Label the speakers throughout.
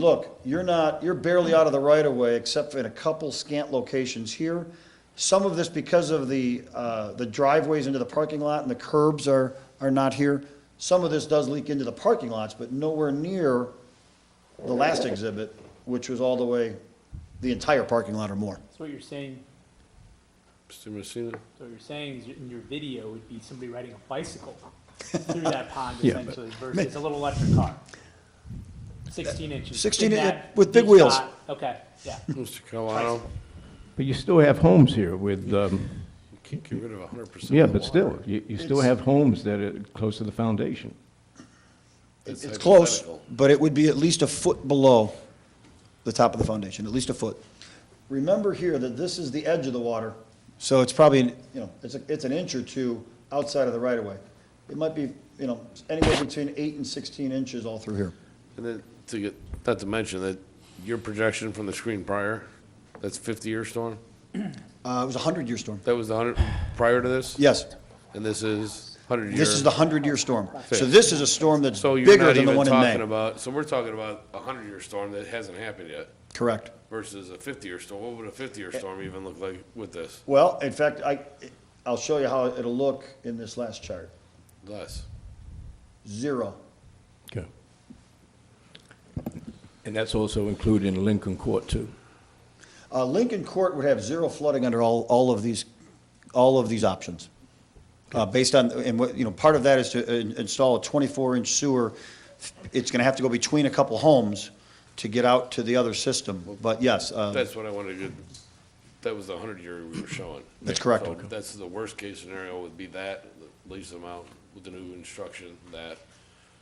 Speaker 1: look, you're not, you're barely out of the right of way except for in a couple scant locations here. Some of this because of the, uh, the driveways into the parking lot and the curbs are, are not here. Some of this does leak into the parking lots, but nowhere near the last exhibit, which was all the way, the entire parking lot or more.
Speaker 2: That's what you're saying,
Speaker 3: Mr. Messina?
Speaker 2: so what you're saying is in your video would be somebody riding a bicycle through that pond essentially versus a little electric car. Sixteen inches.
Speaker 1: 16
Speaker 2: in
Speaker 1: in-
Speaker 2: that
Speaker 1: Uh, with big
Speaker 2: deep
Speaker 1: wheels.
Speaker 2: shot. Okay, yeah.
Speaker 3: Mr. Carlisle?
Speaker 4: But you still have homes here with, um,
Speaker 3: You can't get rid of hundred percent of the
Speaker 4: yeah, but
Speaker 3: water.
Speaker 4: still, you, you still have homes that are close to the foundation.
Speaker 1: It's
Speaker 3: That's
Speaker 1: close,
Speaker 3: hypothetical.
Speaker 1: but it would be at least a foot below the top of the foundation, at least a foot. Remember here that this is the edge of the water, so it's probably, you know, it's, a- it's an inch or two outside of the right of way. It might be, you know, anywhere between eight and sixteen inches all through here.
Speaker 3: And then, to get, not to mention that your projection from the screen prior, that's fifty-year storm?
Speaker 1: Uh, it was a hundred-year storm.
Speaker 3: That was the hundred, prior to this?
Speaker 1: Yes,
Speaker 3: And this is hundred-year?
Speaker 1: this is the hundred-year storm. So
Speaker 3: Okay.
Speaker 1: this is a storm that's
Speaker 3: So you're
Speaker 1: bigger
Speaker 3: not
Speaker 1: than the
Speaker 3: even
Speaker 1: one in
Speaker 3: talking
Speaker 1: May.
Speaker 3: about, so we're talking about a hundred-year storm that hasn't happened yet
Speaker 1: Correct.
Speaker 3: versus a fifty-year storm. What would a fifty-year
Speaker 1: Eh.
Speaker 3: storm even look like with this?
Speaker 1: Well, in fact, I, I'll show you how it'll look in this last chart.
Speaker 3: Less.
Speaker 1: Zero.
Speaker 4: Okay. And that's also included in Lincoln Court too.
Speaker 1: Uh, Lincoln Court would have zero flooding under all, all of these, all of these options. Uh, based on, and what, you know, part of that is to uh, in- install a twenty-four inch sewer. It's gonna have to go between a couple homes to get out to the other system, but yes, uh,
Speaker 3: That's what I wanted to, get- that was the hundred year we were showing.
Speaker 1: That's correct.
Speaker 3: So That's the worst case scenario would be that, the least amount with the new instruction, that.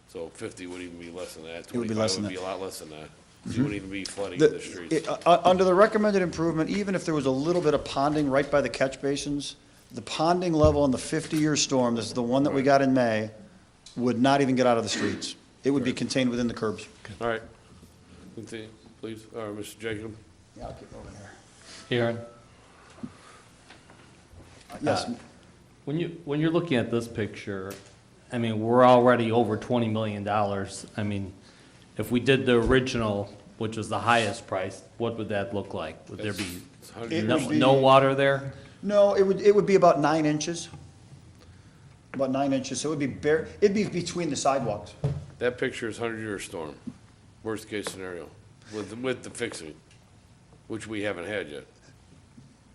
Speaker 3: So fifty would even be less than that.
Speaker 1: It would be less than
Speaker 3: 25
Speaker 1: Mm-hmm.
Speaker 3: Would be a lot less than that. You wouldn't even be flooding
Speaker 1: the-
Speaker 3: the streets.
Speaker 1: it- uh, uh, under the recommended improvement, even if there was a little bit of ponding right by the catch basins, the ponding level in the fifty-year storm, this is the one that we got in May, would not even get out of the streets. It would be contained within the curbs.
Speaker 3: All right. Continue, Please, all right, Mr. Jacob.
Speaker 1: Yeah, I'll keep moving here.
Speaker 5: Aaron,
Speaker 1: Yes,
Speaker 5: when you, when you're looking at this picture, I mean, we're already over twenty million dollars. I mean, if we did the original, which was the highest price, what would that look like? Would there be
Speaker 3: It's
Speaker 1: It
Speaker 3: 100 years.
Speaker 5: no,
Speaker 1: would be-
Speaker 5: no water there?
Speaker 1: No, it would, it would be about nine inches. About nine inches, so it would be bare, it'd be between the sidewalks.
Speaker 3: That picture is hundred year storm, worst case scenario, with, with the fixing, which we haven't had yet.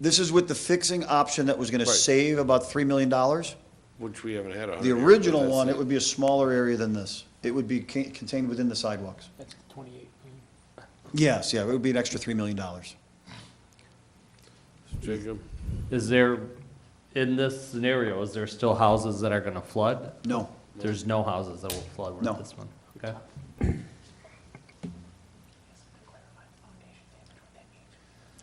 Speaker 1: This is with the fixing option that was gonna
Speaker 3: Right.
Speaker 1: save about three million dollars.
Speaker 3: Which we haven't had a hundred
Speaker 1: The
Speaker 3: years, but
Speaker 1: original
Speaker 3: that's
Speaker 1: one,
Speaker 3: it.
Speaker 1: it would be a smaller area than this. It would be ca- contained within the sidewalks.
Speaker 2: That's twenty-eight.
Speaker 1: Yes, yeah, it would be an extra three million dollars.
Speaker 3: Jacob,
Speaker 5: Is there, in this scenario, is there still houses that are gonna flood?
Speaker 1: No,
Speaker 5: There's no houses that will flood
Speaker 1: No.
Speaker 5: with this one, okay?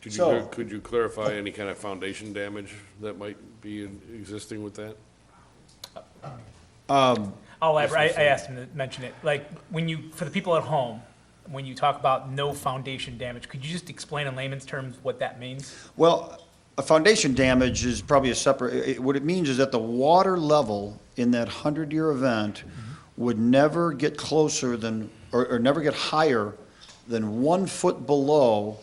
Speaker 3: Could you,
Speaker 1: So-
Speaker 3: clar- could you clarify any kind of foundation damage that might be in- existing with that?
Speaker 6: I'll elaborate. Oh, I, I asked him to mention it. Like, when you, for the people at home, when you talk about no foundation damage, could you just explain in layman's terms what that means?
Speaker 1: Well, a foundation damage is probably a separate, it- it- what it means is that the water level in that 100-year event would never get closer than, or, or never get higher than one foot below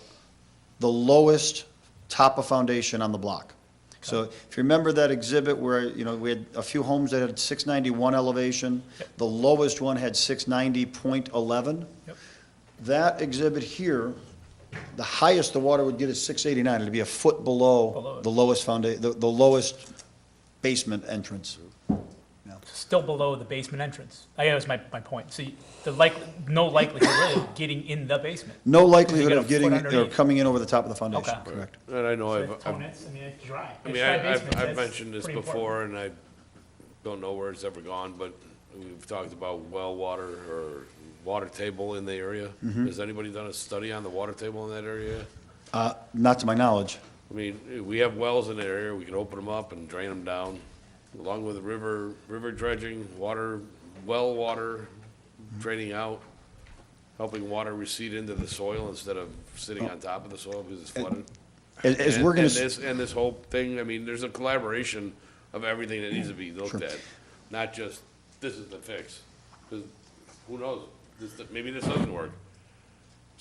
Speaker 1: the lowest top of foundation on the block. So if you remember that exhibit where, you know, we had a few homes that had 691 elevation, the lowest one had 690.11.
Speaker 6: Yep.
Speaker 1: That exhibit here, the highest the water would get is six eighty-nine, it'd be a foot below
Speaker 6: Below it.
Speaker 1: the lowest founda, the, the lowest basement entrance.
Speaker 6: Still below the basement entrance. I, that was my, my point. So you- the like, no likelihood really of getting in the basement.
Speaker 1: No likelihood
Speaker 6: You get a
Speaker 1: of
Speaker 6: foot
Speaker 1: getting, or
Speaker 6: underneath.
Speaker 1: coming in over the top of the foundation,
Speaker 6: Okay.
Speaker 1: correct?
Speaker 3: And I know I've,
Speaker 6: I mean,
Speaker 3: I've-
Speaker 6: it's dry.
Speaker 3: I mean, I- I've, I've mentioned this before, and I don't know where it's ever gone, but we've talked about well water or water table in the area. Has anybody done a study on the water table in that area?
Speaker 1: Uh, not to my knowledge.
Speaker 3: I mean, we have wells in the area, we can open them up and drain them down, along with the river, river dredging, water, well water draining out, helping water recede into the soil instead of sitting on top of the soil because it's flooded.
Speaker 1: As, as we're
Speaker 3: And-
Speaker 1: gonna.
Speaker 3: And
Speaker 1: s-
Speaker 3: this, and this whole thing, I mean, there's a collaboration of everything that needs to be looked at, not just, this is the fix. 'Cause who knows, this, maybe this doesn't work.